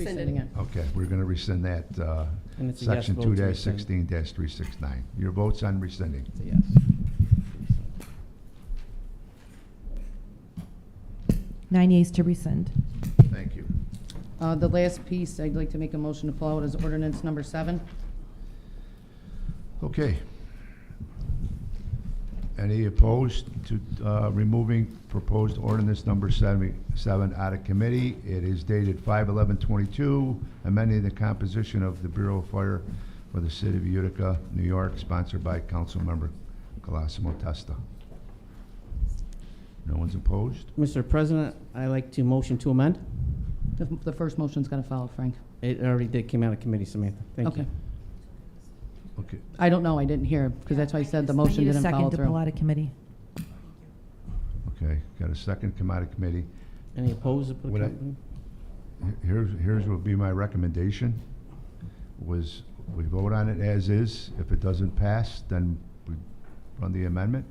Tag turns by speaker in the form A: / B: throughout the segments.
A: rescinding it.
B: Okay, we're going to rescind that, uh,
C: And it's a yes
B: section
C: vote
B: two
C: to
B: dash
C: rescind.
B: sixteen dash three six nine. Your vote's on rescinding.
C: It's a yes.
D: Nine yeas to rescind.
B: Thank you.
A: Uh, The last piece I'd like to make a motion to pull out is ordinance number seven.
B: Okay. Any opposed to uh, removing proposed ordinance number seven seven out of committee? It is dated five eleven twenty-two, amending the composition of the Bureau of Fire for the City of Utica, New York, sponsored by Councilmember Colosimo Testa. No one's opposed?
C: Mr. President, i like to motion to amend.
A: The the first motion's got to follow, Frank.
C: It already did, came out of committee, Samantha. Thank you.
A: Okay.
B: Okay.
A: I don't know, I didn't hear, because that's why I said the motion didn't
D: I need
A: follow
D: a second to pull
A: through.
D: out of committee.
B: Okay, got a second, come out of committee.
C: Any opposed? to put
B: Would I-
C: company?
B: Here- Here's, here's what would be my recommendation, was we vote on it as is. If it doesn't pass, then we run the amendment.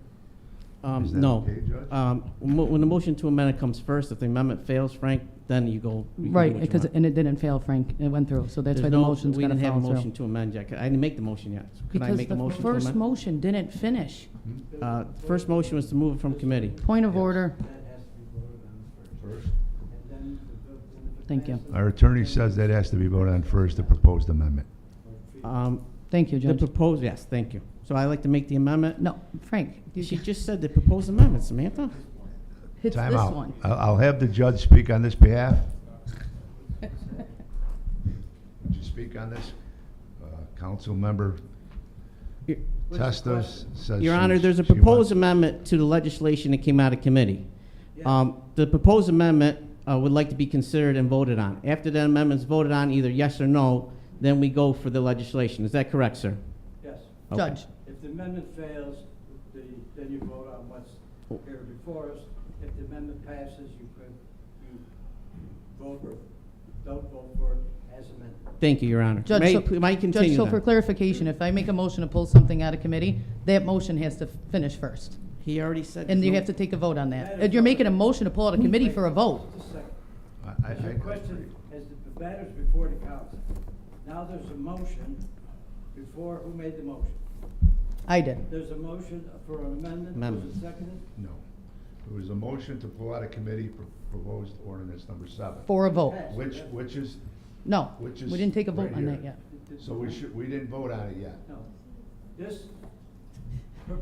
C: Um,
B: Is that
C: no.
B: okay, Judge?
C: Um, mo- when the motion to amend it comes first, if the amendment fails, Frank, then you go. you can do
A: Right,
C: what you
A: because,
C: want.
A: and it didn't fail, Frank, it went through, so that's
C: There's
A: why the
C: no-
A: motion's got to
C: We didn't have a
A: follow
C: motion
A: through.
C: to amend yet. I didn't make the motion yet. So Can I
A: Because
C: make a
A: the
C: motion to
A: first
C: amend?
A: motion didn't finish.
B: Hmm?
C: Uh, first motion was to move it from committee.
A: Point of order,
E: That has to be voted on first. And then the- then the
A: Thank you.
E: passage-
B: Our attorney says that has to be voted on first, the proposed amendment.
C: Um,
A: thank you,
C: the
A: Judge.
C: proposed, yes, thank you. So i like to make the amendment.
A: No, Frank, you-
C: She just said the proposed amendment, Samantha.
B: Uh,
A: it's this
B: Time out.
A: one.
C: Uh,
B: I'll, I'll have the judge speak on this behalf. Would you speak on this? Uh, Council member
C: Your-
B: Testos says.
C: Your
B: she-
C: Honor, there's a
B: she
C: proposed
B: wants-
C: amendment to the legislation that came out of committee. Um, The proposed amendment uh, would like to be considered and voted on. After that amendment's voted on, either yes or no, then we go for the legislation. Is that correct, sir?
E: Yes.
C: Okay.
A: Judge,
E: If the amendment fails, the, then you vote on what's here before us. If the amendment passes, you could, you vote, for don't vote for it as amended.
C: Thank you, Your Honor.
A: Judge,
C: May-
A: so-
C: may I
A: Judge,
C: continue
A: so
C: then?
A: for clarification, if I make a motion to pull something out of committee, that motion has to finish first.
C: He already said.
A: And you
C: no-
A: have to take a vote on that. And You're making a motion to pull out a committee for a vote.
E: Just a second.
B: I- I- I-
E: As your question, as the matters before the council, now there's a motion before, who made the motion?
A: I did.
E: There's a motion for an amendment,
C: Amendment.
E: was it seconded?
B: No. There was a motion to pull out of committee for proposed ordinance number seven.
A: For a vote.
B: Which, which is,
A: No, we
B: Which is
A: didn't take a vote
B: right
A: on that
B: here.
A: yet.
B: so we should, we didn't vote on it yet.
E: No. This per-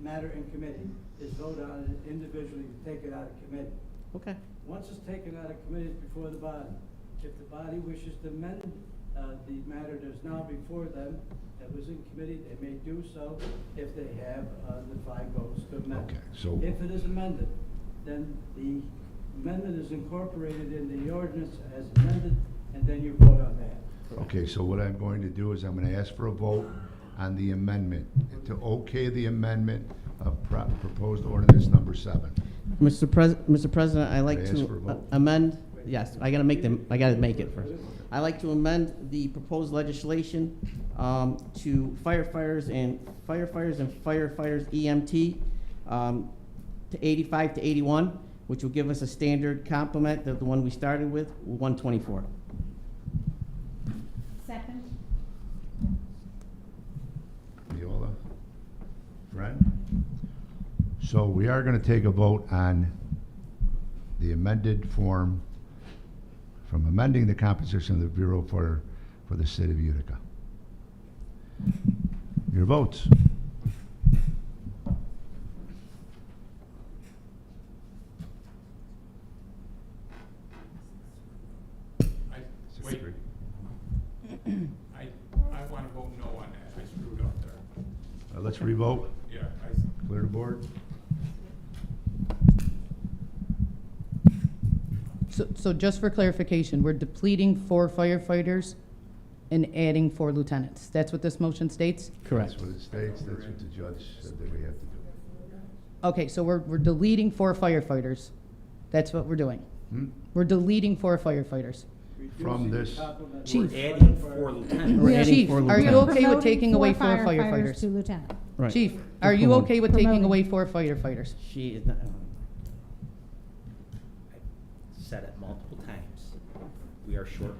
E: matter in committee is voted on it individually, to take it out of committee.
C: Okay.
E: Once it's taken out of committee, it's before the body. If the body wishes to amend uh, the matter that's now before them, that was in committee, they may do so if they have uh, the five votes to amend.
B: Okay, so-
E: If it is amended, then the amendment is incorporated in the ordinance as amended, and then you vote on that.
B: Okay, so what I'm going to do is I'm gonna ask for a vote on the amendment, to okay the amendment of pro- proposed ordinance number seven.
C: Mr. Pres, Mr. President, I like
B: May I ask for a
C: to uh,
B: vote?
C: amend, yes, I gotta make them, I gotta make it first. I like to amend the proposed legislation, um, to firefighters and firefighters and firefighters EMT, um, to eighty-five to eighty-one, which will give us a standard complement of the one we started with, one twenty-four.
D: Second.
B: Viola? Friend? So we are gonna take a vote on the amended form from amending the composition of the Bureau for, for the City of Utica. Your votes.
F: I,
B: Six
F: wait,
B: three.
F: I, I wanna vote no on that, I screwed up there.
B: Uh, Let's revote.
F: Yeah, I, s-
B: Clear the board.
A: So, so just for clarification, we're depleting four firefighters and adding four lieutenants. That's what this motion states?
C: Correct.
B: That's what it states, that's what the judge said that we have to do.
A: Okay, so we're, we're deleting four firefighters. That's what we're doing.
B: Hmm?
A: We're deleting four firefighters.
B: From
E: Reducing the
B: this-
E: complement-
A: Chief.
G: adding four lieutenants.
C: We're adding
A: Chief,
C: four
A: are you
C: lieutenants.
A: okay with taking away four
H: Promoting
A: firefighters?
H: Two lieutenants.
C: Right.
A: Chief, are you
C: Promoting.
A: okay with taking
H: Promoting.
A: away four firefighters?
C: She is not,
G: Said it multiple times. We are short